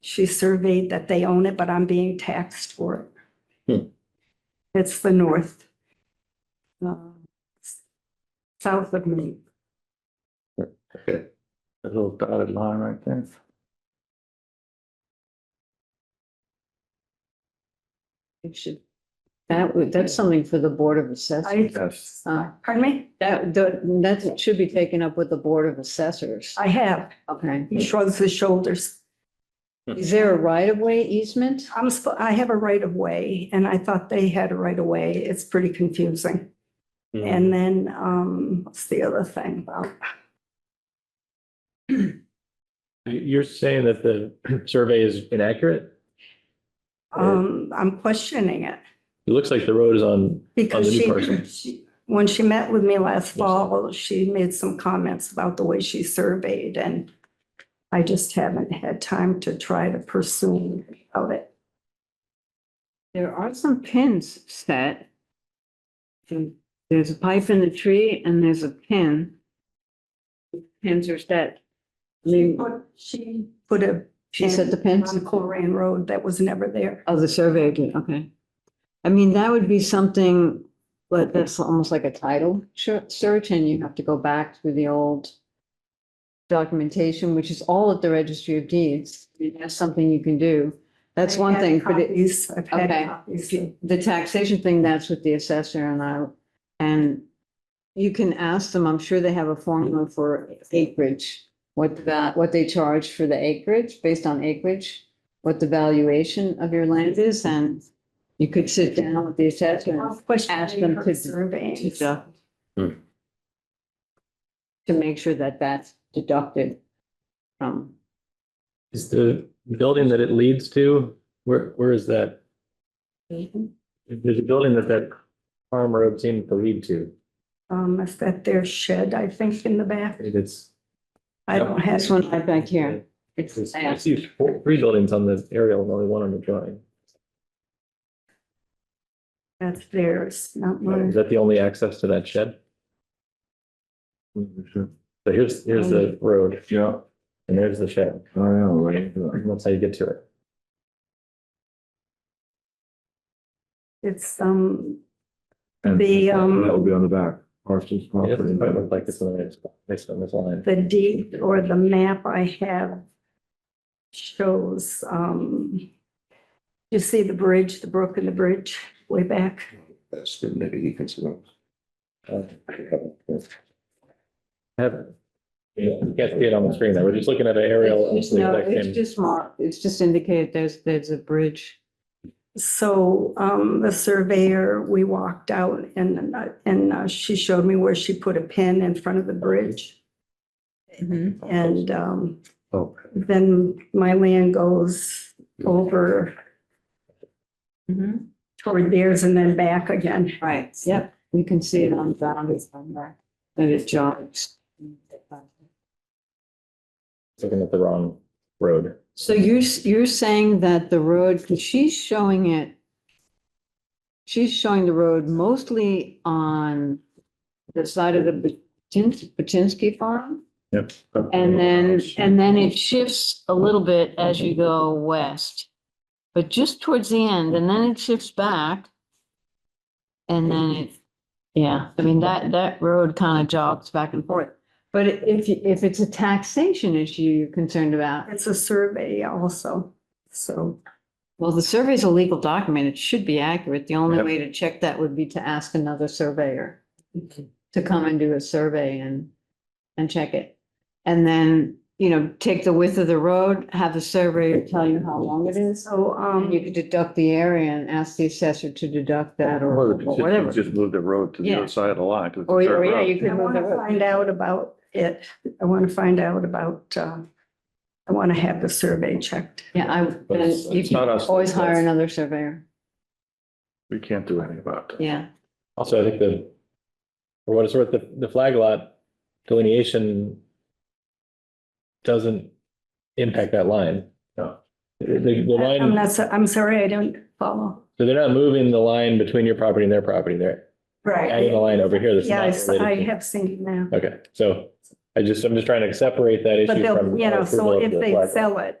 She surveyed that they own it, but I'm being taxed for Hmm. it. It's the north. uh, s- South of me. Okay. A little dotted line right there. It should, that would, that's something for the Board of Assessors. Yes. Uh, Pardon me? That, that that should be taken up with the Board of Assessors. I have. Okay. He shrugs his shoulders. Is there a right-of-way easement? I'm, sp- I have a right of way and I thought they had a right of way. It's pretty confusing. Hmm. Mm-hmm. And then, um, what's the other thing about? You're saying that the survey is inaccurate? Um, I'm questioning it It looks like the road is on, because the new she, person. she, when she met with me last fall, she made some comments about the way she surveyed and I just haven't had time to try to pursue of it. There are some pins set. There's a pipe in the tree and there's a pin. Pins are set. I She mean, put, she put a. she said the pin pins On Colrain Road that was never there. of Oh, the survey, did, okay. I mean, that would be something, but that's almost like a title sh- search and you have to go back through the old documentation, which is all at the registry of deeds. I mean, That's something you can do. That's I one had thing, but it. copies. I've had Okay. copies. The taxation thing, that's with the assessor and I, and you can ask them, I'm sure they have a formula for acreage. What that, what they charge for the acreage, based on acreage, what the valuation of your land is, and you could sit down with the assessor I'll question ask them her to- surveying. to deduct. Hmm. To make sure that that's deducted from, is the building that it leads to, where, where is that? There's a building that that farm road seemed to lead to. Um, is that their shed, I think, in the back? It's. I don't have. this one right back here. It's, It's- I see four- three buildings on the aerial and only one on the drawing. That's theirs, not Is mine. that the only access to that shed? So here's, here's the Mm-hmm. road Yeah, and there's the shed. I know, right? That's how you get to it. It's, um, And The, um, That would be on the back, Parsons It property. doesn't quite look like it's on the, it's on this line. the deed or the map I have shows, um, you see the bridge, the brook and the bridge way back? That's the, maybe he can see. Uh, Have, yeah, you can't see it on the screen there. We're just looking at an aerial. It's just- no, that it's came- just marked, it's just indicated there's, there's a bridge. So, um, the surveyor, we walked out and, uh, and uh, she showed me where she put a pin in front of the bridge. Mm-hmm, And, um, Oh. then my land goes over Mhm. toward theirs and then back again. Right, yep, you can see it on boundaries on that, that it jogs. Looking at the wrong road. So you're, s- you're saying that the road, 'cause she's showing it, she's showing the road mostly on the side of the Patinsky farm? Yep. And then, and then it shifts a little bit as you go west. But just towards the end, and then it shifts back. And then it, yeah, I mean, that, that road kind of jogs back and forth. But if, you- if it's a taxation issue you're concerned about, It's a survey also, so. well, the survey is a legal document. It should be accurate. The only Yep. way to check that would be to ask another surveyor to come and do a survey and, and check it. And then, you know, take the width of the road, have the surveyor tell you how long it is. So, And you um, could deduct the area and ask the assessor to deduct that or or whatever. Just move the road to the Yeah. other side of the line. 'cause it's a Or, dirt or yeah, road. you I could move want the to road. find out about it. I want to find out about, uh, I want to have the survey checked. Yeah, I, But and it's- you it's not can us. always hire another surveyor. We can't do anything about that. Yeah. Also, I think the, for what it's worth, the, the flag lot delineation doesn't impact that line. No. The, the the line. I'm not, so- I'm sorry, I don't follow. So they're not moving the line between your property and their property. They're adding a line over here that's not Yes, I related. have seen that. to- Okay, so I just, I'm just trying to separate that But issue they'll, from. you know, approval so of if the they flag lot. sell it,